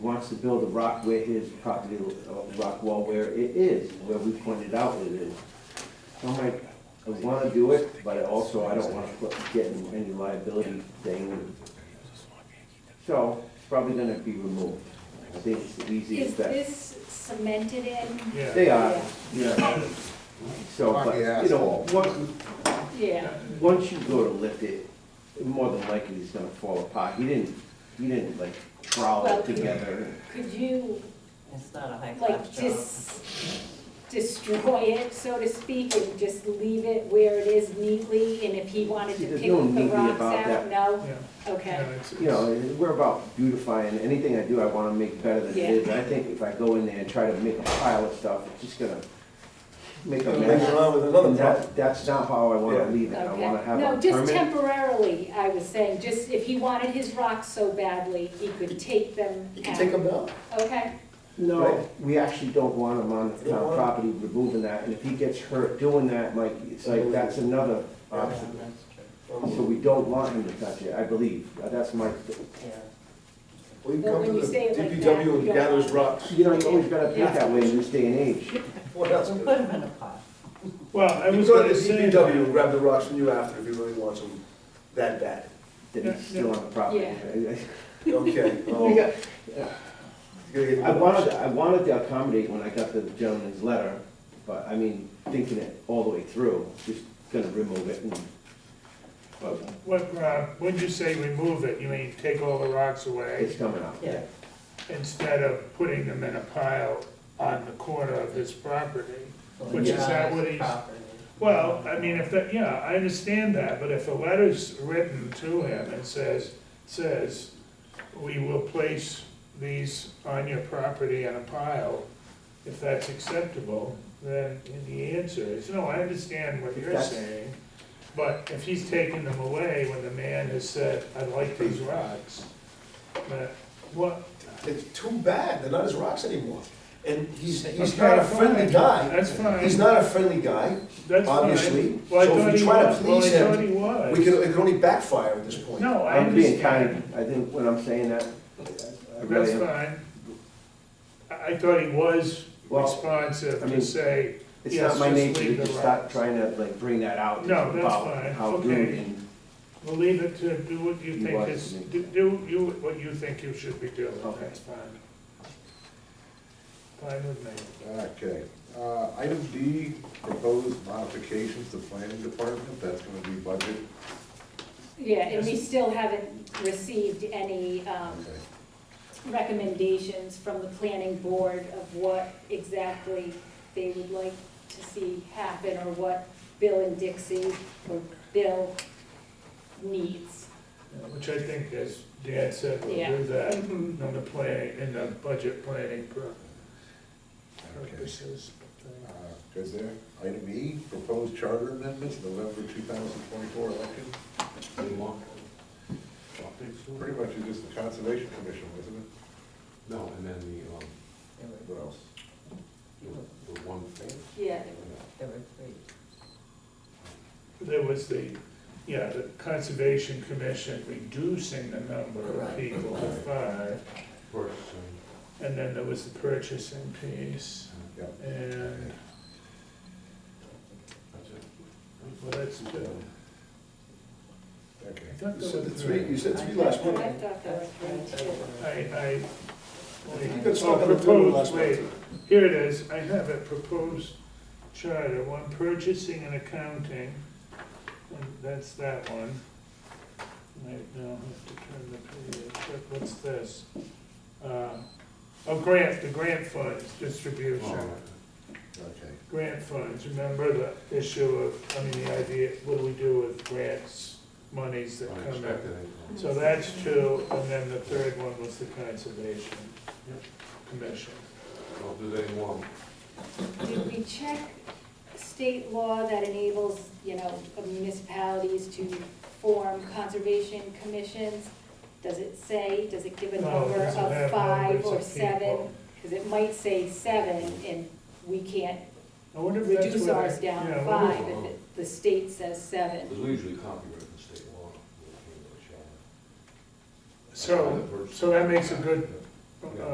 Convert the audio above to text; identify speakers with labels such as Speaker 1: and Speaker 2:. Speaker 1: wants to build a rock where his property, a rock wall where it is, where we pointed out it is. So I'm like, I wanna do it, but I also, I don't wanna put- get in any liability thing. So, it's probably gonna be removed. I think it's the
Speaker 2: Is
Speaker 1: easiest bet.
Speaker 2: this cemented in?
Speaker 1: They are,
Speaker 2: Yeah.
Speaker 1: yeah. So, but, you know,
Speaker 3: Asphalt.
Speaker 1: what,
Speaker 2: Yeah.
Speaker 1: once you go to lift it, more than likely it's gonna fall apart. He didn't, he didn't like trowel
Speaker 2: Well,
Speaker 1: it together.
Speaker 2: Could you,
Speaker 4: It's not a high class
Speaker 2: like,
Speaker 4: job.
Speaker 2: just destroy it, so to speak, and just leave it where it is neatly? And if he wanted
Speaker 1: See,
Speaker 2: to
Speaker 1: there's
Speaker 2: pick
Speaker 1: no
Speaker 2: the
Speaker 1: neatly
Speaker 2: rocks
Speaker 1: about
Speaker 2: out,
Speaker 1: that.
Speaker 2: no?
Speaker 3: Yeah.
Speaker 2: Okay.
Speaker 1: You know, we're about beautifying, anything I do, I wanna make better than it is. I think if I go in there and try to make a pile of stuff, it's just gonna make a
Speaker 5: Gonna mess
Speaker 1: mess.
Speaker 5: around with another
Speaker 1: And
Speaker 5: problem.
Speaker 1: that, that's not how I wanna
Speaker 5: Yeah.
Speaker 1: leave it, I
Speaker 2: Okay.
Speaker 1: wanna have
Speaker 2: No,
Speaker 1: a
Speaker 2: just
Speaker 1: permanent.
Speaker 2: temporarily, I was saying, just if he wanted his rocks so badly, he could take them
Speaker 5: You can
Speaker 2: out.
Speaker 5: take them down.
Speaker 2: Okay,
Speaker 1: No,
Speaker 5: Right.
Speaker 1: we actually don't want him on the
Speaker 5: Don't
Speaker 1: town
Speaker 5: want him.
Speaker 1: property removing that, and if he gets hurt doing that, like, it's like, that's another
Speaker 4: Yeah,
Speaker 1: obstacle.
Speaker 4: That's true,
Speaker 1: So we don't want him to touch it, I believe, Uh, that's my,
Speaker 4: yeah.
Speaker 5: Well, you
Speaker 2: But
Speaker 5: come
Speaker 2: when
Speaker 5: to
Speaker 2: you
Speaker 5: the
Speaker 2: say it like that,
Speaker 5: DPW
Speaker 2: you
Speaker 5: and
Speaker 2: don't
Speaker 5: gather
Speaker 2: want-
Speaker 5: his rocks.
Speaker 1: you know, you always gotta think that way in this day and age.
Speaker 5: Well, that's
Speaker 4: We'll
Speaker 5: good.
Speaker 4: put them in a pot.
Speaker 3: Well, I
Speaker 5: You
Speaker 3: was
Speaker 5: go to
Speaker 3: gonna
Speaker 5: the
Speaker 3: say,
Speaker 5: DPW and grab the rocks from you after if he really wants them that bad.
Speaker 1: That he's still on the property. I-
Speaker 5: Okay.
Speaker 1: I-
Speaker 5: um, you're gonna get
Speaker 1: I
Speaker 5: the
Speaker 1: wanted,
Speaker 5: rocks.
Speaker 1: I wanted to accommodate when I got the gentleman's letter, but I mean, thinking it all the way through, just gonna remove it and, but
Speaker 3: what, uh, when you say remove it, you mean take all the rocks away
Speaker 1: it's coming out.
Speaker 4: Yeah.
Speaker 3: instead of putting them in a pile on the corner of his property?
Speaker 4: Well,
Speaker 3: Which
Speaker 4: it's
Speaker 3: is
Speaker 4: not
Speaker 3: that
Speaker 4: his
Speaker 3: what he's-
Speaker 4: property.
Speaker 3: Well, I mean, if that, yeah, I understand that, but if a letter's written to him and says, says, we will place these on your property in a pile, if that's acceptable, then the answer is, no, I understand what you're
Speaker 1: That's-
Speaker 3: saying, but if he's taking them away when the man has said, I like these rocks, that, what?
Speaker 5: It's too bad, they're not his rocks anymore. And he's, he's
Speaker 3: Okay,
Speaker 5: not a
Speaker 3: fine.
Speaker 5: friendly guy.
Speaker 3: That's fine.
Speaker 5: He's not a friendly guy.
Speaker 3: That's fine.
Speaker 5: obviously.
Speaker 3: Well, I
Speaker 5: So if
Speaker 3: thought
Speaker 5: we
Speaker 3: he
Speaker 5: try to
Speaker 3: was. Well, I
Speaker 5: please him,
Speaker 3: thought he was.
Speaker 5: We can, it can only backfire at this point.
Speaker 3: No, I
Speaker 1: I'm being
Speaker 3: understand.
Speaker 1: kind, I think when I'm saying that, I
Speaker 3: That's
Speaker 1: really am.
Speaker 3: fine. I, I thought he was
Speaker 1: Well,
Speaker 3: responsive
Speaker 1: I
Speaker 3: to
Speaker 1: mean,
Speaker 3: say,
Speaker 1: It's not my
Speaker 3: Yes,
Speaker 1: nature
Speaker 3: just leave
Speaker 1: to
Speaker 3: the
Speaker 1: just stop
Speaker 3: rocks.
Speaker 1: trying to like bring that out.
Speaker 3: No, that's
Speaker 1: about
Speaker 3: fine.
Speaker 1: How
Speaker 3: Okay.
Speaker 1: rude and,
Speaker 3: well, leave it to do what you
Speaker 1: He
Speaker 3: think
Speaker 1: was
Speaker 3: is,
Speaker 1: me.
Speaker 3: do, do you, what you think you should be doing,
Speaker 1: Okay.
Speaker 3: that's fine. Fine with me.
Speaker 6: Okay, uh, item D, proposed modifications to planning department, that's gonna be budget.
Speaker 2: yeah, and we still haven't received any, um,
Speaker 6: Okay.
Speaker 2: recommendations from the planning board of what exactly they would like to see happen or what Bill and Dixie or Bill needs.
Speaker 3: Uh, Which I think, as Dan said, we'll
Speaker 2: Yeah.
Speaker 3: do that
Speaker 2: Mhm.
Speaker 3: in the plan, in the budget planning pro-
Speaker 6: Okay,
Speaker 3: purposes.
Speaker 6: uh, good there. Item E, proposed charter amendments, November two thousand twenty-four election. Pretty much it's just the conservation commission, wasn't it?
Speaker 7: No, and then the, um,
Speaker 4: There were-
Speaker 6: What else?
Speaker 7: the- the one thing.
Speaker 2: Yeah.
Speaker 4: There were three.
Speaker 3: There was the, yeah, the Conservation Commission reducing the number of
Speaker 4: Right.
Speaker 3: people to five,
Speaker 7: Right.
Speaker 3: and then there was the purchasing piece,
Speaker 6: Yeah.
Speaker 7: uh,
Speaker 3: and,
Speaker 7: That's it.
Speaker 3: well, that's good.
Speaker 6: Okay.
Speaker 3: I thought
Speaker 5: You
Speaker 3: there
Speaker 5: said
Speaker 3: was
Speaker 5: the three, you said three last
Speaker 2: I
Speaker 5: month.
Speaker 2: thought that was great too.
Speaker 3: I, I.
Speaker 5: You got
Speaker 3: Oh,
Speaker 5: stuck on the two
Speaker 3: proposed,
Speaker 5: last
Speaker 3: wait,
Speaker 5: month.
Speaker 3: here it is, I have a proposed charter, one purchasing and accounting, and that's that one. Right now, I have to turn the page, What- what's this? Uh, Oh, grant, the grant funds distribution,
Speaker 7: Oh,
Speaker 6: Okay.
Speaker 3: grant funds, remember the issue of, I mean, the idea, what do we do with grants, monies that come in?
Speaker 7: Unexpected. I uh, thought.
Speaker 3: So that's two, and then the third one was the Conservation Commission.
Speaker 7: Well, do they want,
Speaker 2: Did we check state law that enables, you know, municipalities to form conservation commissions? Does it say, does it give a
Speaker 3: No, it
Speaker 2: number
Speaker 3: doesn't have
Speaker 2: of five
Speaker 3: numbers
Speaker 2: or
Speaker 3: of
Speaker 2: seven?
Speaker 3: people.
Speaker 2: Because it might say seven, and we can't
Speaker 3: I wonder if that's
Speaker 2: reduce
Speaker 3: where they-
Speaker 2: ours down
Speaker 3: yeah,
Speaker 2: to
Speaker 3: I wonder if-
Speaker 2: five if it- the state says seven.
Speaker 7: because we usually copyright the state law. when it came to the
Speaker 3: So,
Speaker 7: charter.
Speaker 3: so that makes a good, uh,